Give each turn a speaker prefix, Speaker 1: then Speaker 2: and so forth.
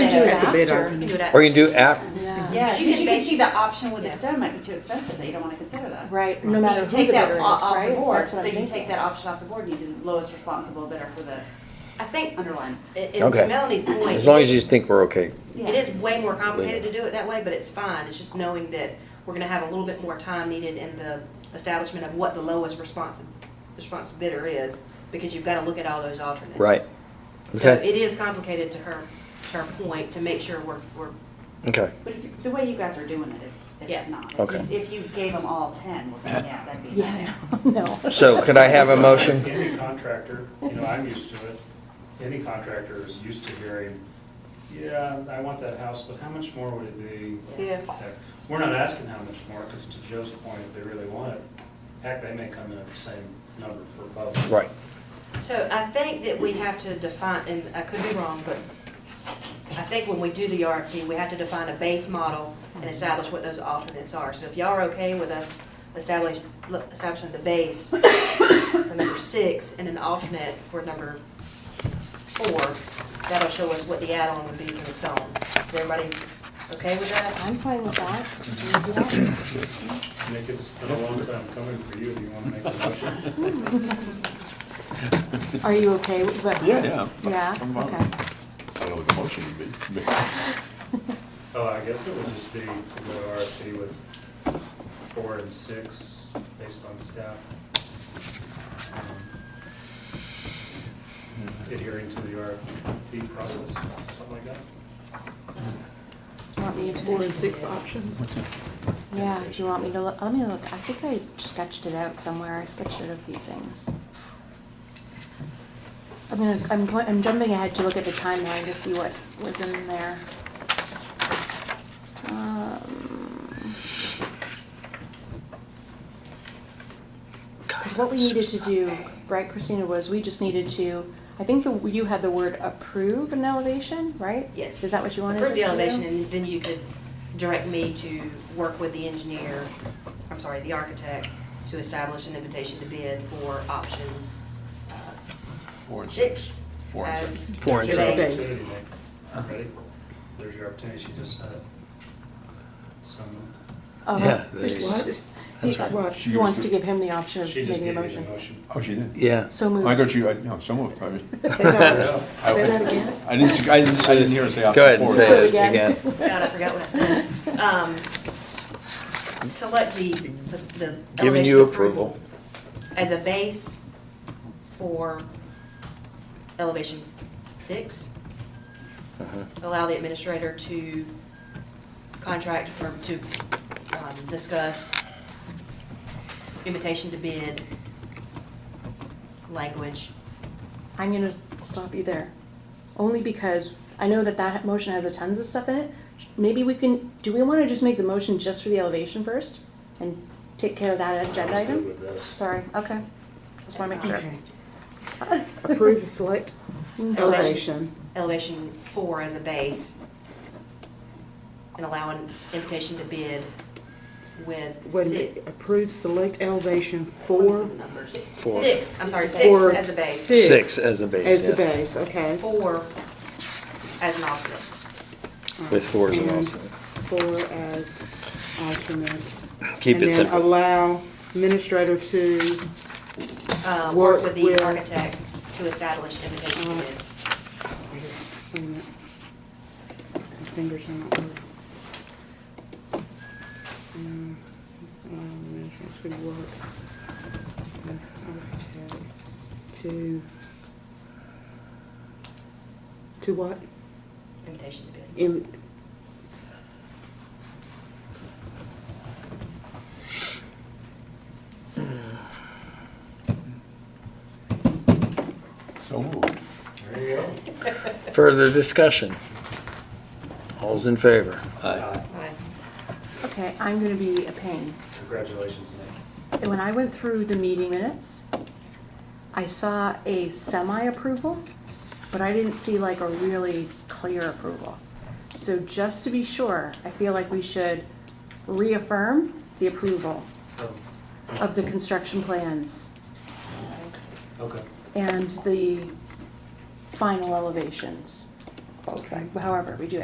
Speaker 1: put the bid
Speaker 2: after.
Speaker 1: on.
Speaker 2: You can do it
Speaker 3: Or
Speaker 2: after.
Speaker 3: you can do it after,
Speaker 2: Yeah,
Speaker 4: Yeah,
Speaker 2: 'cause
Speaker 4: you
Speaker 2: you
Speaker 4: can
Speaker 2: can
Speaker 4: base-
Speaker 2: see the option with the
Speaker 4: Yeah.
Speaker 2: stone might be too expensive, they don't wanna consider that.
Speaker 4: Right,
Speaker 2: So
Speaker 4: no
Speaker 2: you
Speaker 4: matter who
Speaker 2: take
Speaker 4: the
Speaker 2: that
Speaker 4: bidder is,
Speaker 2: o- off the
Speaker 4: right?
Speaker 2: board.
Speaker 4: That's
Speaker 2: So
Speaker 4: what I'm
Speaker 2: you can take
Speaker 4: thinking.
Speaker 2: that option off the board, and you do the lowest responsible bidder for the
Speaker 5: I think,
Speaker 2: underlying.
Speaker 5: and and
Speaker 3: Okay.
Speaker 5: to Melanie's point.
Speaker 3: as long as you think we're okay.
Speaker 5: It is way more complicated to do it that way, but it's fine. It's just knowing that we're gonna have a little bit more time needed in the establishment of what the lowest responsive, responsive bidder is, because you've gotta look at all those alternates.
Speaker 3: Right.
Speaker 5: So
Speaker 3: Okay.
Speaker 5: it is complicated to her, to her point, to make sure we're, we're,
Speaker 3: Okay.
Speaker 2: But if, you- the way you guys are doing it, it's,
Speaker 5: Yeah.
Speaker 2: it's not. If
Speaker 3: Okay.
Speaker 2: you- If you gave them all ten, well, then yeah, that'd be a
Speaker 4: Yeah,
Speaker 2: nightmare.
Speaker 4: no, no.
Speaker 3: So could I have a motion?
Speaker 6: Any contractor, you know, I'm used to it, any contractor is used to hearing, yeah, I want that house, but how much more would it be?
Speaker 4: Yeah.
Speaker 6: We're not asking how much more, because to Joe's point, if they really want it, heck, they may come in at the same number for both.
Speaker 3: Right.
Speaker 5: so I think that we have to define, and I could be wrong, but I think when we do the RFP, we have to define a base model and establish what those alternates are. So if y'all are okay with us establish, establishing the base for number six and an alternate for number four, that'll show us what the add-on would be for the stone. Is everybody okay with that?
Speaker 4: I'm fine with that. Yeah.
Speaker 6: Nick, it's been a long time coming for you, do you want to make a motion?
Speaker 4: Are you okay with that?
Speaker 7: Yeah, yeah.
Speaker 4: Yeah,
Speaker 7: I'm fine.
Speaker 4: okay.
Speaker 7: I don't know what the motion would be.
Speaker 6: Oh, I guess it would just be to go RFP with four and six, based on staff. um, Adhering to the RFP process, something like that.
Speaker 4: Want me to?
Speaker 1: Four and six options.
Speaker 4: Yeah, do you want me to look, let me look, I think I sketched it out somewhere, I sketched out a few things. I'm gonna, I'm, pl- I'm jumping ahead to look at the timeline to see what was in there. Um, 'cause what we needed to do, right Christina, was we just needed to, I think the, you had the word approve an elevation, right?
Speaker 5: Yes.
Speaker 4: Is that what you wanted?
Speaker 5: Approve the
Speaker 4: us to do?
Speaker 5: elevation, and then you could direct me to work with the engineer, I'm sorry, the architect, to establish an invitation to bid for option uh, s-
Speaker 7: Four and
Speaker 5: six.
Speaker 7: Four and
Speaker 5: as
Speaker 7: six.
Speaker 1: Four and
Speaker 5: the
Speaker 6: Here's your
Speaker 1: six.
Speaker 5: base.
Speaker 6: opportunity, Nick. Ready? There's your opportunity, she just said it. Someone-
Speaker 4: Oh,
Speaker 3: Yeah,
Speaker 4: right.
Speaker 3: there you
Speaker 4: What?
Speaker 3: go.
Speaker 4: He-
Speaker 3: That's
Speaker 4: well,
Speaker 7: right.
Speaker 4: He wants to give him the option of
Speaker 6: She just
Speaker 4: making a
Speaker 6: gave you the
Speaker 4: motion.
Speaker 6: motion.
Speaker 7: Oh, she did?
Speaker 3: Yeah.
Speaker 4: So
Speaker 7: I
Speaker 4: moved.
Speaker 7: thought you, I, no, so moved, probably.
Speaker 4: Say that-
Speaker 6: Yeah.
Speaker 7: I
Speaker 4: say that again.
Speaker 7: I didn't, I didn't, I didn't hear her say option
Speaker 3: Go ahead and
Speaker 7: four.
Speaker 3: say it
Speaker 4: Say it again.
Speaker 3: again.
Speaker 5: God, I forgot what I said. Um, Select the, the the
Speaker 3: Giving you
Speaker 5: elevation approval
Speaker 3: approval.
Speaker 5: as a base for elevation six.
Speaker 3: Uh-huh.
Speaker 5: Allow the administrator to contract or to um, discuss invitation to bid language.
Speaker 4: I'm gonna stop you there, only because I know that that motion has a tons of stuff in it. Maybe we can, do we wanna just make the motion just for the elevation first? And take care of that agenda
Speaker 6: I was good
Speaker 4: item?
Speaker 6: with this.
Speaker 4: Sorry, okay. Just wanna make sure.
Speaker 1: Okay. Approve the select elevation.
Speaker 5: elevation four as a base and allow an invitation to bid with
Speaker 1: When
Speaker 5: six.
Speaker 1: approve select elevation
Speaker 5: What are
Speaker 1: for
Speaker 5: some numbers?
Speaker 3: Four.
Speaker 5: Six, I'm sorry,
Speaker 1: Four.
Speaker 5: six as a base,
Speaker 3: Six as a base,
Speaker 1: as the
Speaker 3: yes.
Speaker 1: base, okay.
Speaker 5: four as an alternate.
Speaker 3: With four as an
Speaker 1: And
Speaker 3: alternate.
Speaker 1: Four as alternate.
Speaker 3: Keep it
Speaker 1: And then
Speaker 3: simple.
Speaker 1: allow administrator to,
Speaker 5: Uh,
Speaker 1: Work
Speaker 5: Work with
Speaker 1: with-
Speaker 5: the architect to establish invitation to bids.
Speaker 1: wait a minute. My fingers are not working. Mm, allow Administrator to work with architect to, to what?
Speaker 5: Invitation to bid.
Speaker 1: In,
Speaker 7: So moved.
Speaker 6: There you go.
Speaker 3: Further discussion? All's in favor?
Speaker 6: Uh,
Speaker 5: Right.
Speaker 4: Okay, I'm gonna be a pain.
Speaker 6: Congratulations, Nick.
Speaker 4: When I went through the meeting minutes, I saw a semi-approval, but I didn't see like a really clear approval. So just to be sure, I feel like we should reaffirm the approval of the construction plans
Speaker 6: Oh, Okay.
Speaker 4: and the final elevations. However we do it.